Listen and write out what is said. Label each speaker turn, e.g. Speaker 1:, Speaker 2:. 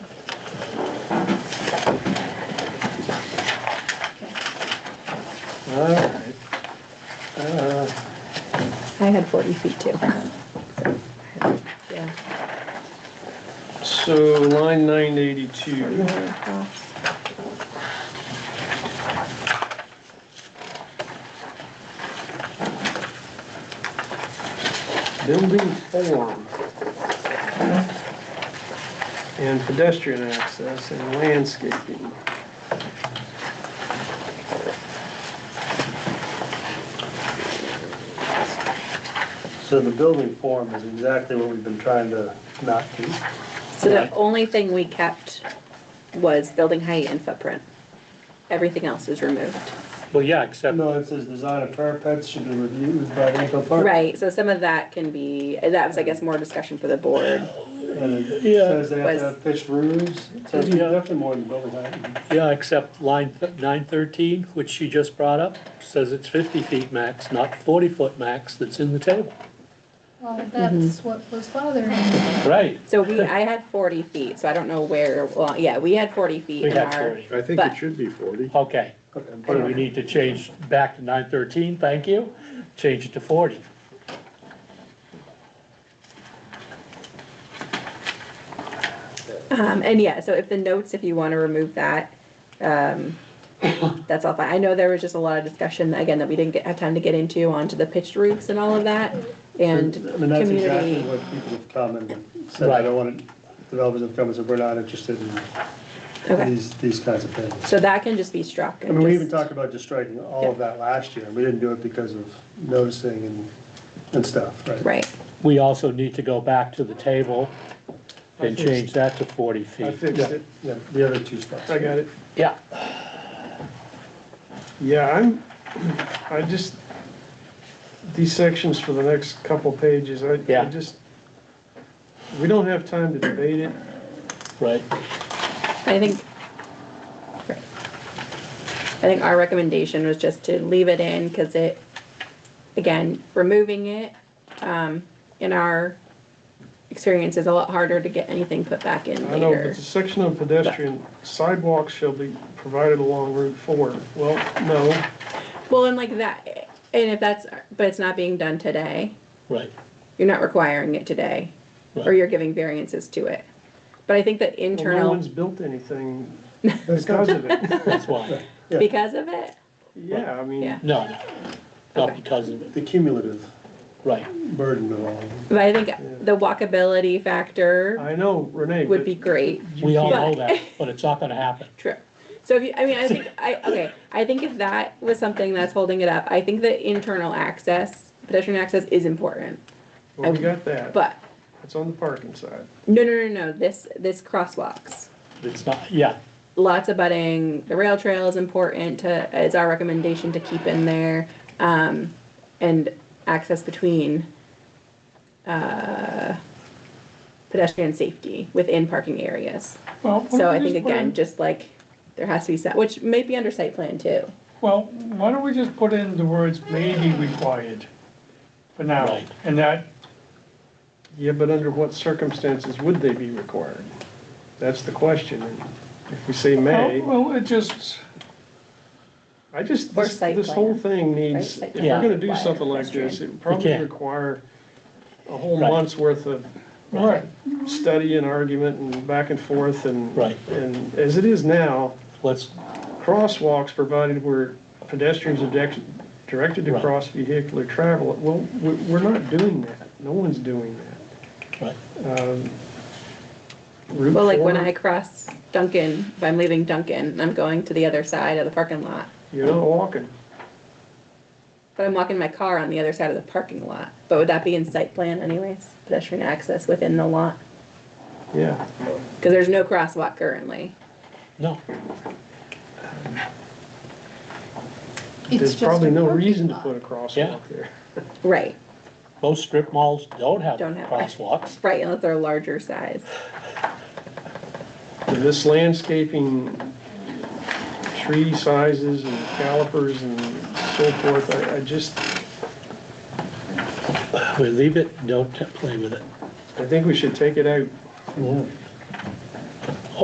Speaker 1: Uh,
Speaker 2: mine had forty feet too. Yeah.
Speaker 3: So line nine eighty-two, building form. And pedestrian access and landscaping.
Speaker 1: So the building form is exactly what we've been trying to not do.
Speaker 2: So the only thing we kept was building height and footprint. Everything else is removed.
Speaker 4: Well, yeah, except,
Speaker 1: No, it says design of parapets should be reviewed by the Eco Park.
Speaker 2: Right, so some of that can be, that was, I guess, more discussion for the board.
Speaker 1: And it
Speaker 4: Yeah.
Speaker 1: says they have to have pitched roofs, It says
Speaker 4: Yeah.
Speaker 1: definitely more than building height.
Speaker 4: yeah, except line nine thirteen, which she just brought up, says it's fifty feet max, not forty foot max that's in the table.
Speaker 5: Well, that's what was bothering me.
Speaker 4: Right.
Speaker 2: So we, I had forty feet, so I don't know where, well, yeah, we had forty feet
Speaker 4: We
Speaker 2: in
Speaker 4: got
Speaker 2: our.
Speaker 4: forty.
Speaker 6: I think
Speaker 2: But-
Speaker 6: it should be forty.
Speaker 4: Okay,
Speaker 1: Okay.
Speaker 4: but we need to change back to nine thirteen, thank you, change it to forty.
Speaker 2: Um, and yeah, so if the notes, if you wanna remove that, um, that's all fine. I know there was just a lot of discussion, again, that we didn't get, have time to get into, onto the pitched roofs and all of that, and
Speaker 1: I mean, that's exactly
Speaker 2: community.
Speaker 1: what people have come and said, I
Speaker 4: Right.
Speaker 1: don't want, it- developers have come and said, we're not interested in
Speaker 2: Okay,
Speaker 1: these, these kinds of things.
Speaker 2: so that can just be struck.
Speaker 1: I
Speaker 2: and
Speaker 1: mean, we even
Speaker 2: just-
Speaker 1: talked about just striking all of that last year, and we didn't do it because of noticing and, and stuff, right?
Speaker 2: Right,
Speaker 4: We also need to go back to the table and change that to forty feet.
Speaker 1: Yeah, yeah, the other two spots.
Speaker 3: I got it.
Speaker 4: Yeah,
Speaker 3: Yeah, I'm, I just, these sections for the next couple pages, I, I
Speaker 4: Yeah.
Speaker 3: just, we don't have time to debate it.
Speaker 4: right.
Speaker 2: I think. I think our recommendation was just to leave it in, cause it, again, removing it, um, in our experience is a lot harder to get anything put back in
Speaker 3: I know,
Speaker 2: later.
Speaker 3: but the section on pedestrian sidewalks shall be provided along Route four. Well, no,
Speaker 2: Well, and like that, and if that's, but it's not being done today,
Speaker 4: Right.
Speaker 2: you're not requiring it today, or
Speaker 4: Right.
Speaker 2: you're giving variances to it. But I think that
Speaker 3: well, no
Speaker 2: internal,
Speaker 3: one's built anything
Speaker 1: That's not-
Speaker 3: because of it.
Speaker 4: That's why,
Speaker 1: yeah.
Speaker 2: because of it,
Speaker 3: Yeah, I mean,
Speaker 2: Yeah.
Speaker 4: no, no, not because of it,
Speaker 1: The cumulative
Speaker 4: right.
Speaker 1: burden of all of them.
Speaker 2: but I think the walkability factor
Speaker 3: I know, Renee,
Speaker 2: would be
Speaker 3: but
Speaker 2: great.
Speaker 4: We all know
Speaker 2: can't-
Speaker 4: that, but it's not gonna happen.
Speaker 2: True. So if you, I mean, I think, I, okay, I think if that was something that's holding it up, I think that internal access, pedestrian access is important.
Speaker 3: well, we got that.
Speaker 2: But,
Speaker 3: It's on the parking side.
Speaker 2: no, no, no, no, this, this crosswalks.
Speaker 4: It's not, yeah,
Speaker 2: Lots of budding, the rail trail is important to, is our recommendation to keep in there. Um, and access between, uh, pedestrian safety within parking areas.
Speaker 7: Well,
Speaker 2: So
Speaker 7: why
Speaker 2: I
Speaker 7: don't we
Speaker 2: think
Speaker 7: just put
Speaker 2: again,
Speaker 7: in,
Speaker 2: just like, there has to be set, which may be under site plan too.
Speaker 7: well, why don't we just put in the words may be required for now?
Speaker 4: Right.
Speaker 7: And that,
Speaker 3: Yeah, but under what circumstances would they be required? That's the question. And If we say may,
Speaker 7: well, it just,
Speaker 3: I just,
Speaker 2: Or
Speaker 3: this,
Speaker 2: site
Speaker 3: this whole
Speaker 2: plan,
Speaker 3: thing needs,
Speaker 2: Site
Speaker 3: if we're
Speaker 4: plan.
Speaker 3: gonna do
Speaker 2: Yeah.
Speaker 3: something like this, it would probably
Speaker 4: can't.
Speaker 3: require a whole
Speaker 4: Right.
Speaker 3: month's worth of
Speaker 7: right,
Speaker 3: study and argument and back and forth and.
Speaker 4: Right.
Speaker 3: And as it is now,
Speaker 4: let's,
Speaker 3: crosswalks provided where pedestrians are direct- directed to
Speaker 4: Right.
Speaker 3: cross vehicular travel, well, we- we're not doing that. No one's doing that.
Speaker 4: right.
Speaker 3: Route
Speaker 2: Well, like when
Speaker 3: four,
Speaker 2: I cross Duncan, if I'm leaving Duncan, and I'm going to the other side of the parking lot,
Speaker 3: You're not walking.
Speaker 2: but I'm walking my car on the other side of the parking lot. But would that be in site plan anyways, pedestrian access within the lot?
Speaker 3: Yeah.
Speaker 2: Because there's no crosswalk currently.
Speaker 4: No,
Speaker 3: There's probably no reason to put a crosswalk
Speaker 4: Yeah.
Speaker 3: there.
Speaker 2: Right,
Speaker 4: most strip malls don't have
Speaker 2: Don't have.
Speaker 4: crosswalks.
Speaker 2: right, unless they're larger size.
Speaker 3: And This landscaping, tree sizes and calipers and so forth, I, I just,
Speaker 4: We leave it, don't play with it.
Speaker 3: I think we should take it out.
Speaker 1: Yeah.